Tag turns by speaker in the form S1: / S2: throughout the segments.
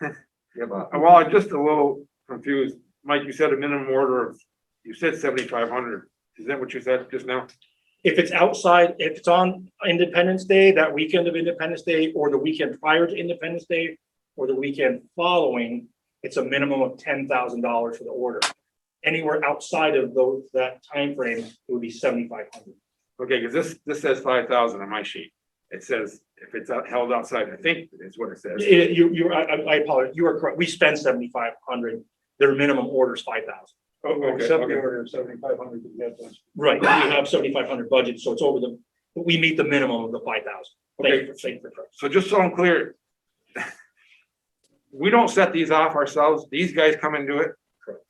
S1: Yeah, but
S2: Uh, Well, I'm just a little confused. Mike, you said a minimum order of, you said seventy-five hundred. Is that what you said just now?
S3: If it's outside, if it's on Independence Day, that weekend of Independence Day, or the weekend prior to Independence Day, or the weekend following, it's a minimum of ten thousand dollars for the order. Anywhere outside of those, that timeframe, it would be seventy-five hundred.
S2: Okay, because this, this says five thousand on my sheet. It says if it's out- held outside, I think is what it says.
S3: You, you, I, I- I apologize, you are correct, we spend seventy-five hundred, their minimum order is five thousand.
S2: Oh, okay,
S4: Except the
S2: okay.
S4: order of seventy-five hundred that you had last.
S3: Right, we have seventy-five hundred budget, so it's over the, but we meet the minimum of the five thousand. Thank you for saying for correct.
S2: So just so I'm clear. We don't set these off ourselves. These guys come and do it?
S3: Correct.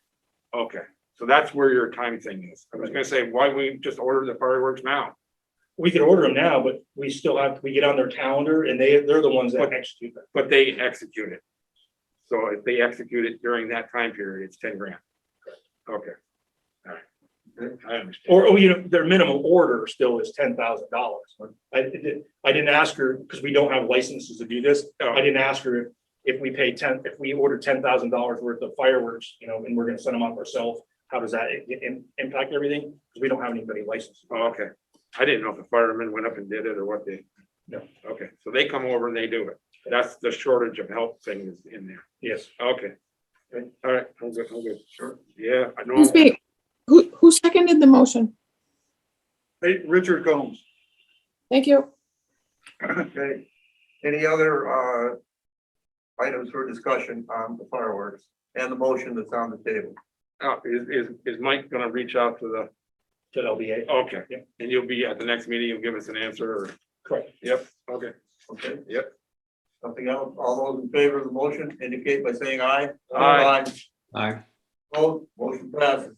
S2: Okay, so that's where your time thing is. I was gonna say, why we just order the fireworks now?
S3: We could order them now, but we still have, we get on their calendar and they, they're the ones that
S2: But-
S3: execute them.
S2: But they execute it. So if they execute it during that time period, it's ten grand. Okay. All right. I understand.
S3: Or, or, you know, their minimum order still is ten thousand dollars. I didn't, I didn't ask her, because we don't have licenses to do this,
S2: Oh.
S3: I didn't ask her if- if we pay ten, if we order ten thousand dollars worth of fireworks, you know, and we're gonna send them off ourselves, how does that i- i- impact everything? Because we don't have anybody licensed.
S2: Oh, Okay, I didn't know if the firemen went up and did it or what they.
S3: No.
S2: Okay, so they come over and they do it. That's the shortage of help thing is in there.
S3: Yes.
S2: Okay. All right, I'm good, I'm good. Sure. Yeah, I know.
S5: Excuse me, who, who seconded the motion?
S4: Hey, Richard Combs.
S5: Thank you.
S4: Okay. Any other, uh, items for discussion on the fireworks and the motion that's on the table?
S2: Uh, Is, is, is Mike gonna reach out to
S3: To LBA,
S2: the, okay,
S3: Yeah.
S2: and you'll be at the next meeting, you'll give us an answer or,
S3: correct.
S2: yep, okay.
S4: Okay?
S2: Yep.
S4: Something else? All those in favor of the motion indicate by saying aye.
S2: Aye.
S6: Aye.
S4: Vote, motion passes.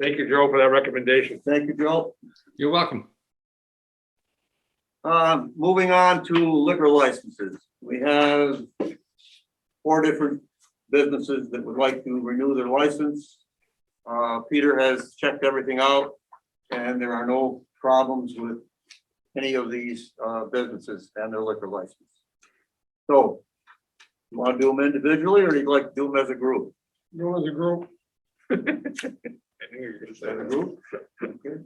S2: Thank you, Joe, for that recommendation.
S4: Thank you, Joe.
S6: You're welcome.
S4: Um, moving on to liquor licenses, we have four different businesses that would like to renew their license. Uh, Peter has checked everything out and there are no problems with any of these, uh, businesses and their liquor license. So, you want to do them individually or do you like to do them as a group?
S2: Go as a group. I knew you were gonna say
S4: As a
S2: that.
S4: group? Okay.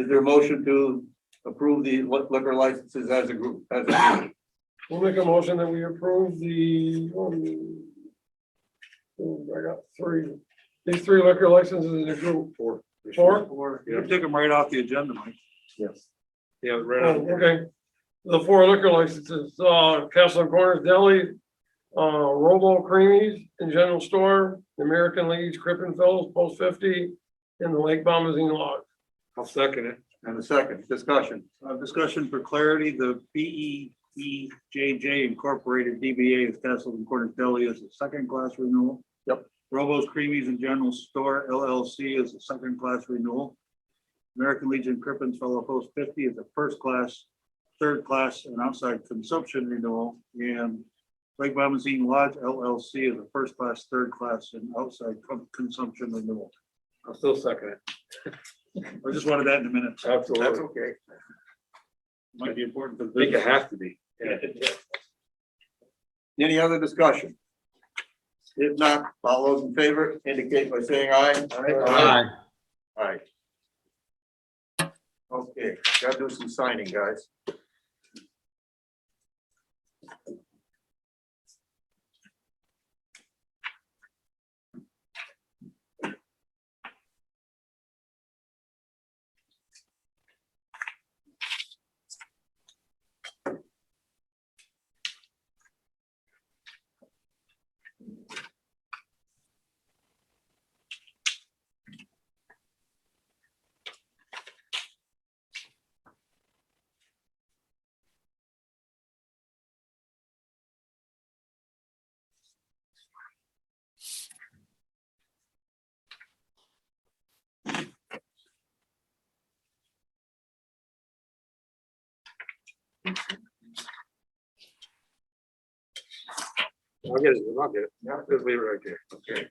S4: Is there a motion to approve the li- liquor licenses as a group, as a group?
S7: We'll make a motion that we approve the, um, oh, I got three, these three liquor licenses in a group.
S2: Four.
S7: Four?
S2: You
S4: took them right off the agenda, Mike. Yes.
S2: Yeah,
S7: Oh,
S2: right on.
S7: Okay, the four liquor licenses, uh, Castle and Corners Deli, uh, Robo Creamies and General Store, American League's Crippen Fellows, Post Fifty, and the Lake Bombazine Lodge.
S2: I'll second it.
S4: And a second, discussion.
S8: Uh, discussion for clarity, the B E E J J Incorporated DBA of Castle and Corners Deli is a second class renewal.
S4: Yep.
S8: Robo's Creamies and General Store LLC is a second class renewal. American Legion Crippens Fellow Post fifty is a first class, third class and outside consumption renewal. And Lake Bombazine Lodge LLC is a first class, third class and outside con- consumption renewal.
S2: I'll still second it.
S8: I just wanted that in a minute.
S4: That's
S2: Absolutely.
S4: okay.
S8: Might be important for the
S2: I think it
S8: business.
S2: has to be. Yeah.
S4: Any other discussion? If not, all those in favor indicate by saying aye.
S6: Aye.
S4: Aye. Okay, gotta do some signing, guys.
S2: I'll get it, I'll get it. Just leave it right there. Okay.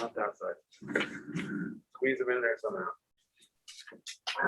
S2: Not that side. Squeeze them in there somehow.